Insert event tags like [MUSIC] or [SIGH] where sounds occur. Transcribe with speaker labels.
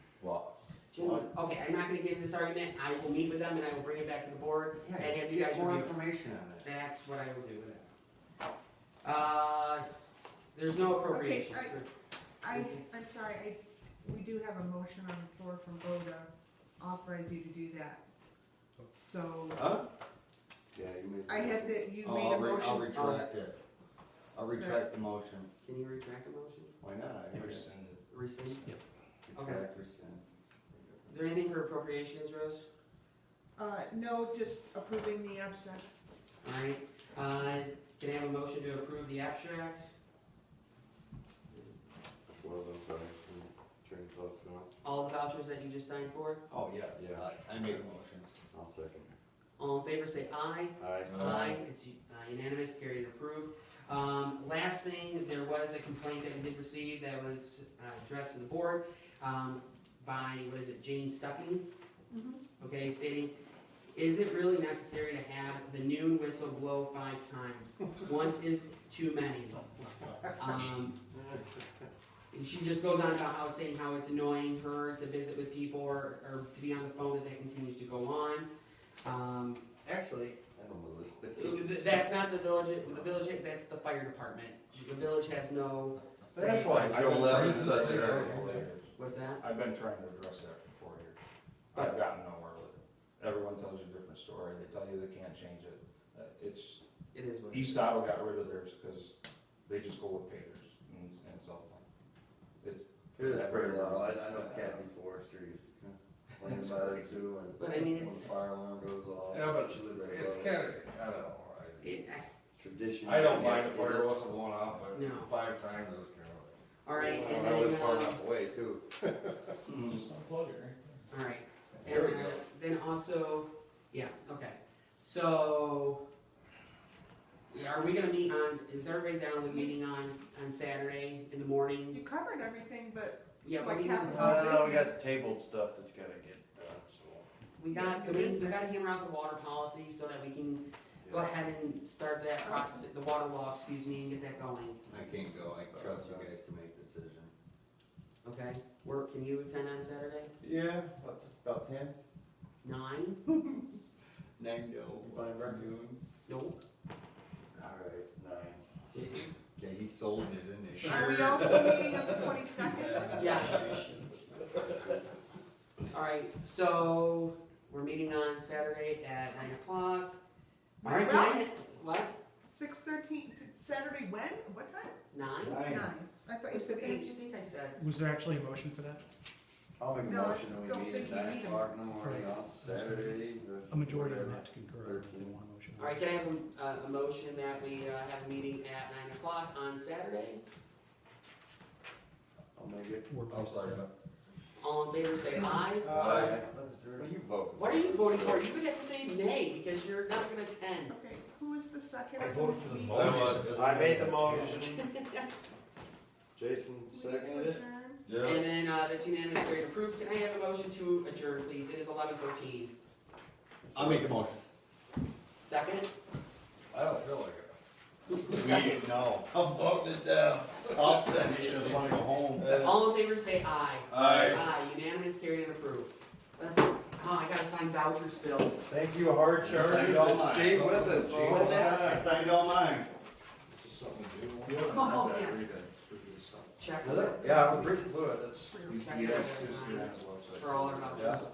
Speaker 1: Jim, okay, I'm not gonna give this argument, I will meet with them and I will bring it back to the board
Speaker 2: Yeah,
Speaker 1: and have
Speaker 2: just
Speaker 1: you guys
Speaker 2: get more
Speaker 1: review. it.
Speaker 2: information on it.
Speaker 1: That's what I will do with it. Uh, there's no appropriations.
Speaker 3: Okay, I, I'm sorry, I, we do have a motion on the floor from Bo to authorize you to do that. So,
Speaker 2: Huh? Yeah, you made.
Speaker 3: I had that, you
Speaker 2: Oh,
Speaker 3: made
Speaker 2: I'll
Speaker 3: a
Speaker 2: re- I'll
Speaker 3: motion,
Speaker 2: retract it. I'll retract the motion.
Speaker 1: Can you retract the motion?
Speaker 2: Why not? I re-
Speaker 1: Rescind? Yep. Okay.
Speaker 2: Retract, rescind.
Speaker 1: Is there anything for appropriations, Rose?
Speaker 3: uh, no, just approving the abstract.
Speaker 1: Alright, uh, can I have a motion to approve the abstract?
Speaker 4: What was I sorry, I'm train of thoughts now,
Speaker 1: All the vouchers that you just signed for?
Speaker 2: Oh, yes, I, I made a motion.
Speaker 4: I'll second.
Speaker 1: All in favor, say aye.
Speaker 4: Aye.
Speaker 2: Aye.
Speaker 1: Aye, it's uh, unanimous, carried and approved. Um, last thing, there was a complaint that we did receive that was uh, addressed to the board, um, by, what is it, Jane Stucking? okay, stating, is it really necessary to have the noon whistle blow five times? Once is too many. Um, and she just goes on about how, saying how it's annoying her to visit with people or, or to be on the phone, that that continues to go on. Um,
Speaker 2: Actually,
Speaker 4: I don't know this.
Speaker 1: th- that's not the village, the village, that's the fire department. The village has no,
Speaker 2: that's why
Speaker 5: I've
Speaker 2: Joe
Speaker 5: been
Speaker 2: Levin
Speaker 5: trying to
Speaker 2: said
Speaker 5: address that
Speaker 2: that.
Speaker 5: for four years.
Speaker 1: what's that?
Speaker 5: I've been trying to address that for four years. I've gotten nowhere with it. Everyone tells you a different story. They tell you they can't change it. Uh, It's,
Speaker 1: It is what it is.
Speaker 5: East Otto got rid of theirs because they just go with pagers and, and cell phone. It's.
Speaker 4: It is pretty loud, I, I know Kathy Forrester used to complain
Speaker 5: It's
Speaker 4: about it too, and.
Speaker 1: But I mean,
Speaker 4: when
Speaker 1: it's-
Speaker 4: Fire alarm goes off.
Speaker 5: Yeah, but
Speaker 4: she lived right
Speaker 5: it's
Speaker 4: above
Speaker 5: kinda,
Speaker 4: it.
Speaker 5: I don't know. I-
Speaker 1: It- I-
Speaker 4: Tradition.
Speaker 5: I don't
Speaker 4: yeah,
Speaker 5: mind if
Speaker 4: yeah.
Speaker 5: fire wasn't going off, but
Speaker 1: No.
Speaker 5: five times is kind of
Speaker 1: All right,
Speaker 4: Well,
Speaker 1: and
Speaker 4: I live
Speaker 1: then,
Speaker 4: far
Speaker 1: um,
Speaker 4: enough away
Speaker 2: [LAUGHS]
Speaker 4: too.
Speaker 5: like. Just unplug it,
Speaker 1: all right, And
Speaker 4: There we
Speaker 1: uh,
Speaker 4: go.
Speaker 1: then also, yeah, okay, so. yeah, Are we gonna meet on, is everybody down with meeting on, on Saturday in the morning?
Speaker 3: You covered everything, but
Speaker 1: Yeah,
Speaker 3: Like
Speaker 1: we need to
Speaker 3: half
Speaker 1: talk,
Speaker 3: an hour.
Speaker 2: No, we got tabled stuff that's gotta get done, so.
Speaker 1: we got, we we gotta hammer out the water policy so that we can go ahead and start that process, the water law, excuse me, and get that going,
Speaker 2: I can't go, I trust you guys to make decision.
Speaker 1: okay? Work, can you attend on Saturday?
Speaker 4: Yeah, about, about ten.
Speaker 1: Nine?
Speaker 2: Nine, no.
Speaker 4: By noon.
Speaker 1: Nope,
Speaker 2: Alright, nine.
Speaker 1: Jason?
Speaker 2: Yeah, he sold it, didn't he?
Speaker 3: are we also meeting on the twenty-second? [LAUGHS]
Speaker 1: Yes. All right, so we're meeting on Saturday at nine o'clock. All right,
Speaker 3: Well-
Speaker 1: nine- what?
Speaker 3: Six thirteen, Saturday when, what time?
Speaker 1: Nine?
Speaker 2: Nine.
Speaker 3: Nine, I thought you said
Speaker 1: What
Speaker 3: eight.
Speaker 1: you think I said?
Speaker 6: Was there actually a motion for that?
Speaker 2: I'll make a
Speaker 3: No, I
Speaker 2: motion that
Speaker 3: don't
Speaker 2: we meet
Speaker 3: think
Speaker 2: at
Speaker 3: you
Speaker 2: nine
Speaker 3: need 'em.
Speaker 2: o'clock in the morning on Saturday. the-
Speaker 6: A majority of them
Speaker 2: whatever.
Speaker 6: have to concur in one motion.
Speaker 1: All right, can I have a, a- a motion that we uh, have a meeting at nine o'clock on Saturday?
Speaker 4: I'll make it.
Speaker 6: We're
Speaker 5: I'll
Speaker 6: both-
Speaker 5: start it.
Speaker 1: All in favor, say aye.
Speaker 2: Aye.
Speaker 4: That's
Speaker 2: What are you voting?
Speaker 1: What are you voting for? You would have to say nay because you're not gonna attend.
Speaker 3: Okay, who is the second?
Speaker 7: I voted for the
Speaker 3: We-
Speaker 7: motion.
Speaker 4: I made the motion. [LAUGHS] Jason seconded it.
Speaker 3: Adjourn?
Speaker 1: And then uh, that's unanimous, carried, approved. Can I have a motion to adjourn, please? It is eleven thirteen.
Speaker 2: I'll make a motion.
Speaker 1: Second?
Speaker 5: I don't feel like it.
Speaker 2: Second, no.
Speaker 7: I'm voting it down. I'll send
Speaker 2: He doesn't wanna go home.
Speaker 1: All in favor, say aye.
Speaker 7: Aye.
Speaker 1: Aye, unanimous, carried, and approved. That's, oh, I gotta sign vouchers still.
Speaker 2: Thank you, hard
Speaker 4: Thank
Speaker 2: chargers,
Speaker 4: you all
Speaker 2: that stayed
Speaker 4: mine.
Speaker 2: with us, Gene.
Speaker 4: What's that?
Speaker 2: I signed all mine.
Speaker 5: Just something to do.
Speaker 1: You haven't read Oh, that, yes. read Checks.
Speaker 4: Yeah, I'm pretty fluid, that's.
Speaker 1: Checks
Speaker 5: Yes, it's been on his website.
Speaker 1: For all our vouchers.